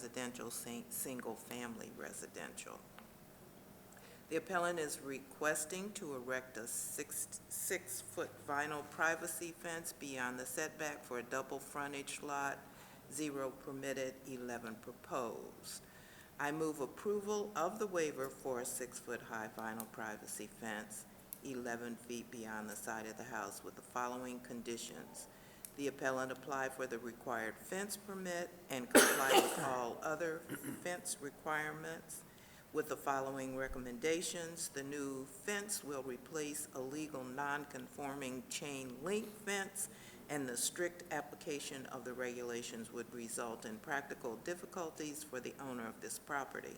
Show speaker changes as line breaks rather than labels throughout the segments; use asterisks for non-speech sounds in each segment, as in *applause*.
residential, sing- single-family residential. The appellant is requesting to erect a six, six-foot vinyl privacy fence beyond the setback for a double frontage lot, zero permitted, eleven proposed. I move approval of the waiver for a six-foot-high vinyl privacy fence, eleven feet beyond the side of the house with the following conditions. The appellant apply for the required fence permit and comply with all other fence requirements with the following recommendations. The new fence will replace a legal non-conforming chain link fence, and the strict application of the regulations would result in practical difficulties for the owner of this property.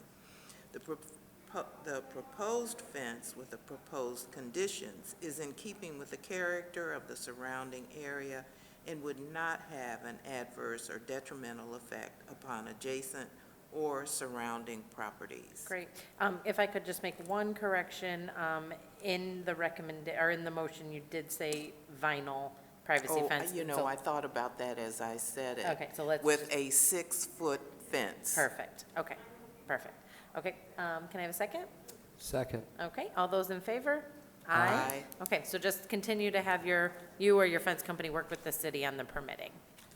The propo- the proposed fence with the proposed conditions is in keeping with the character of the surrounding area and would not have an adverse or detrimental effect upon adjacent or surrounding properties.
Great. Um, If I could just make one correction, um, in the recommend, or in the motion, you did say vinyl privacy
Oh,
fence.
You know,
so-
I thought about that as I said it.
Okay, so let's
With
just-
a six-foot fence.
Perfect, okay, perfect. Okay, um, can I have a second?
Second.
Okay, all those in favor?
Aye.
Okay, so just continue to have your, you or your fence company work with the city on the permitting.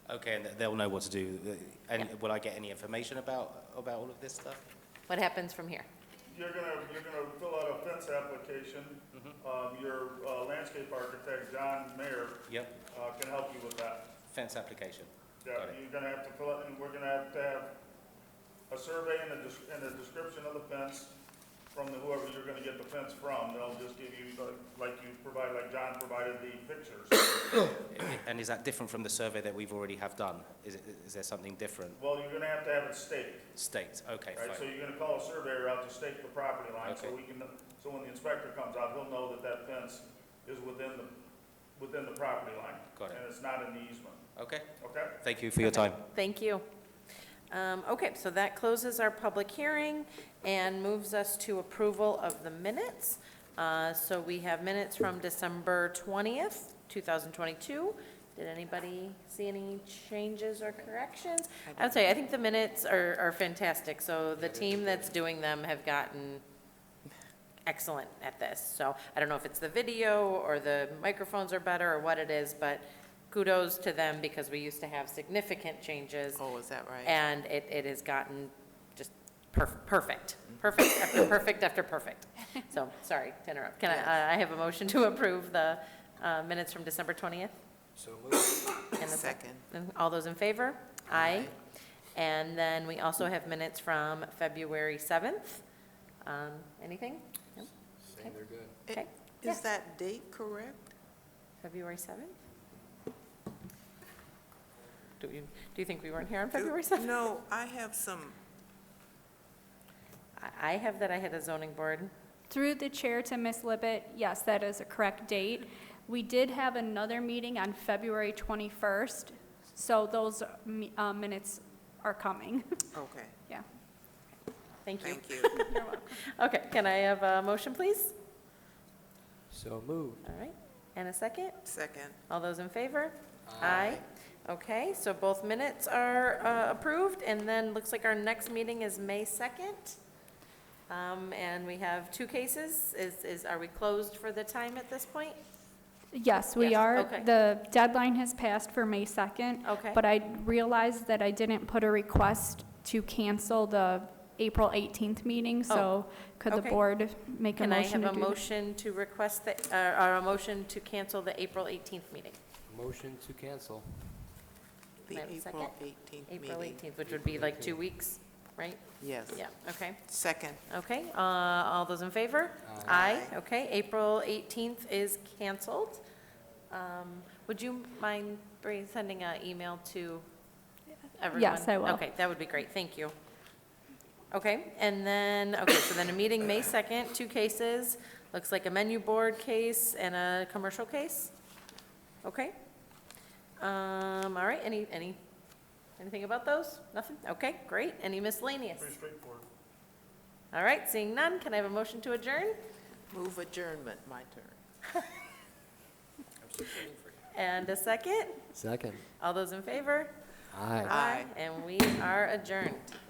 Okay, and they'll know what to do. And
Yeah.
will I get any information about, about all of this stuff?
What happens from here?
You're gonna, you're gonna fill out a fence application.
Mm-hmm.
Um, your uh, landscape architect, John Mayer,
Yep,
uh, can help you with that.
fence application.
Yeah,
Got it.
you're gonna have to fill out, and we're gonna have to have a survey and a, des- and a description of the fence from the whoever you're gonna get the fence from. They'll just give you, like, like you provide, like John provided the pictures.
And is that different from the survey that we've already have done? Is, it- is there something different?
Well, you're gonna have to have it staked,
State, okay,
right? So
fine.
you're gonna call a surveyor out to stake the property line, so
Okay.
we can, so when the inspector comes out, he'll know that that fence is within the, within the property line.
Got it.
And it's not in the easement,
Okay,
okay?
thank you for your time.
Thank you. Um, Okay, so that closes our public hearing and moves us to approval of the minutes. Uh, So we have minutes from December 20th, 2022. Did anybody see any changes or corrections? I would say, I think the minutes are are fantastic, so the team that's doing them have gotten excellent at this. So I don't know if it's the video or the microphones are better or what it is, but kudos to them because we used to have significant changes.
Oh, is that right?
And it, it has gotten just perf- perfect, perfect after perfect after perfect. So, sorry to interrupt. Can I, I have a motion to approve the uh, minutes from December 20th?
So moved.
And a sec-
Second.
and All those in favor? Aye. And then we also have minutes from February 7th. Um, Anything? No?
Saying they're good.
Okay.
I- Is that date correct?
February 7th? Do you, do you think we weren't here on February 7th?
No, I have some,
I- I have that I had a zoning board.
Through the chair to Ms. Libbit, yes, that is a correct date. We did have another meeting on February 21st, so those mi- uh, minutes are coming. *laughs*
okay,
Yeah.
Thank you.
thank you.
You're welcome.
Okay, can I have a motion, please?
So moved.
All right, and a second?
Second,
All those in favor? Aye. Okay, so both minutes are uh, approved, and then looks like our next meeting is May 2nd. Um, And we have two cases. Is, is, are we closed for the time at this point?
Yes, we
Yes,
are.
okay.
The deadline has passed for May 2nd.
Okay.
But I realized that I didn't put a request to cancel the April 18th meeting, so could the
Oh, okay.
board make a
Can I have
motion to
a
do that?
motion to request the, uh, or a motion to cancel the April 18th meeting?
Motion to cancel.
the
Madam
April
Second?
18th
April
meeting.
18th, which would be like two weeks, right?
Yes,
Yeah, okay.
second.
Okay, uh, all those in favor?
Aye.
Okay, April 18th is canceled. Um, Would you mind bring- sending an email to everyone?
Yes, I will.
Okay, that would be great, thank you. Okay, and then, okay, so then a meeting May 2nd, two cases, looks like a menu board case and a commercial case? Okay. Um, All right, any, any, anything about those? Nothing? Okay, great. Any miscellaneous?
Pretty straightforward.
All right, seeing none, can I have a motion to adjourn?
Move adjournment, my turn.
And a second?
Second.
All those in favor?
Aye.
Aye.
And we are adjourned.